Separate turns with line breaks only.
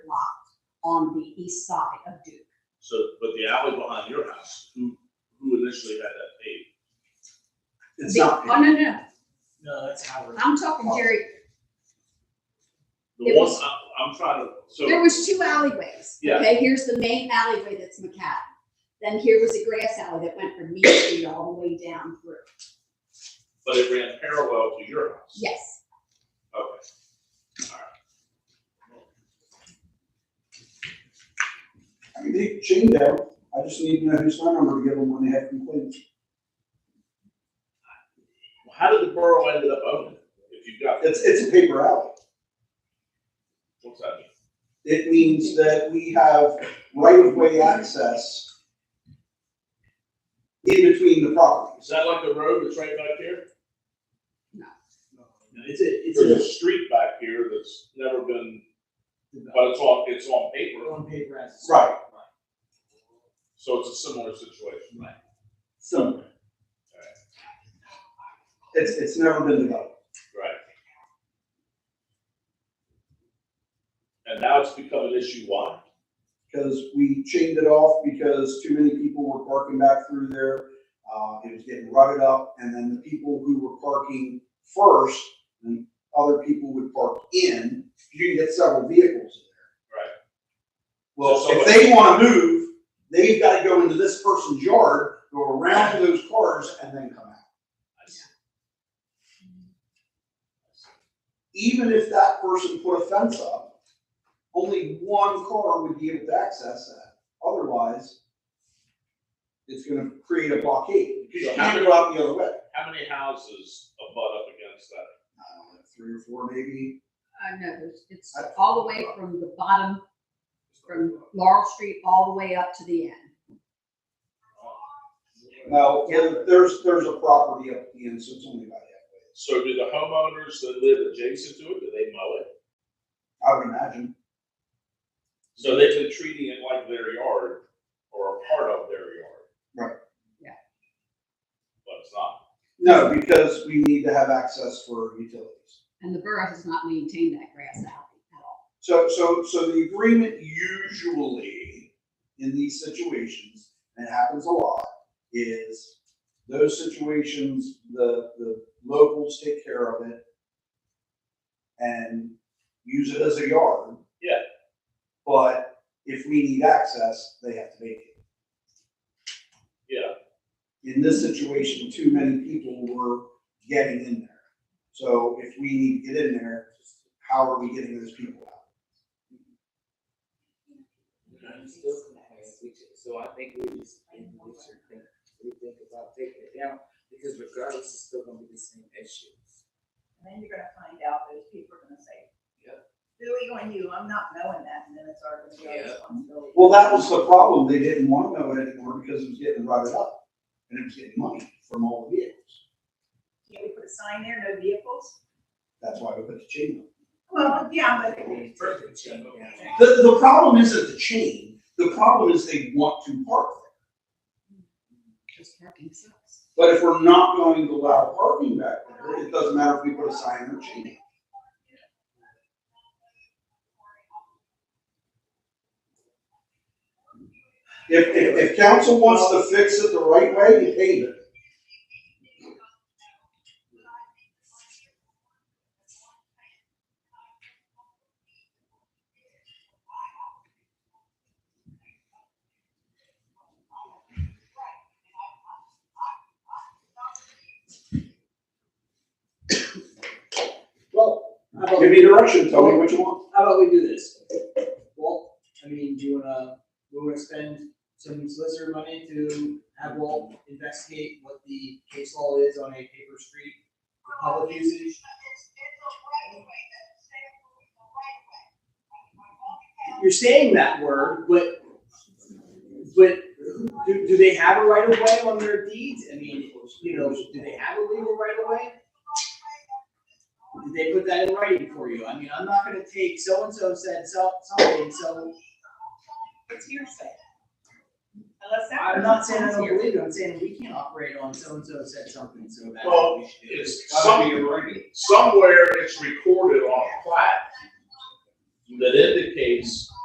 lot on the east side of Duke.
So, but the alley behind your house, who, who initially had that paved?
It's
The-
not,
Oh, no, no,
No, that's Howard.
I'm talking, Jerry,
The
It
one,
was-
I, I'm trying to, so.
there was two alleyways.
Yeah.
Okay, here's the main alleyway that's macadam. Then here was a grass alley that went from Mead Street all the way down through.
But it ran parallel to your house?
Yes,
Okay.
I mean, they changed that, I just need to know whose phone number to give them when they have complaints.
Well, How did the borough ended up owning it? If you've got,
It's, it's a paper alley.
what's that mean?
It means that we have right-of-way access in between the properties.
Is that like the road that's right back here?
No.
No, It's a, it's a street back here that's never been, but it's on, it's on
We're
paper,
on paper as.
Right.
so it's a similar situation.
Right. So,
It's, it's never been developed.
Right. And now it's become an issue why?
Because we chained it off because too many people were parking back through there. Uh, it was getting rutted up and then the people who were parking first, and other people would park in, you can get several vehicles in there.
Right.
Well,
So
if
somebody-
they wanna move, they've gotta go into this person's yard, go around to those cars and then come out. even if that person put a fence up, only one car would be able to access that. Otherwise, it's gonna create a blockade, because you can't go out the other way.
How many houses abut up against that?
I don't know, three or four maybe.
I know, it's- it's all the way from the bottom, from Laurel Street, all the way up to the end.
No, there- there's, there's a property up at the end, so it's only about halfway.
So do the homeowners that live adjacent to it, do they mow it?
I would imagine.
So they've been treating it like their yard or a part of their yard.
Right.
Yeah.
But it's not.
No, because we need to have access for utilities.
And the borough has not maintained that grass alley at all.
So, so, so the agreement usually in these situations, and it happens a lot, is those situations, the, the locals take care of it and use it as a yard.
Yeah.
But if we need access, they have to make it.
Yeah,
In this situation, too many people were getting in there. So if we need to get in there, how are we getting those people out?
I'm still complaining, we should- So I think we just, we should think, we think about taking it down, because regardless, it's still gonna be the same issue.
And then you're gonna find out those people are gonna say,
Yep.
Billy on you, I'm not knowing that, and then it's our, it's our
Yeah.
responsibility.
Well, that was the problem. They didn't want to know it anymore because it was getting rotted up and it was getting money from all the vehicles.
Can't we put a sign there, no vehicles?
That's why we put the chain
Well, yeah, but
Perfect, Jim.
on. The, the problem isn't the chain. The problem is they want to park there.
Just parking sucks.
But if we're not going to allow parking back there, it doesn't matter if we put a sign or chain. on. If, if, if council wants to fix it the right way, you pay it.
well, how about,
Give me direction, tell me what you want.
how about we do this? Walt, I mean, do you wanna, we wanna spend some solicitor money to have Walt investigate what the case law is on a paper street for public usage? You're saying that word, but, but do, do they have a right of way on their deeds? I mean, you know, do they have a legal right of way? Did they put that in writing for you? I mean, I'm not gonna take so-and-so said so, something, so
it's hearsay. Unless that.
I'm not saying I don't believe it, I'm saying we can't operate on so-and-so said something, so that's what we should do.
it's
Gotta
some,
be a writing.
somewhere it's recorded on a plat that indicates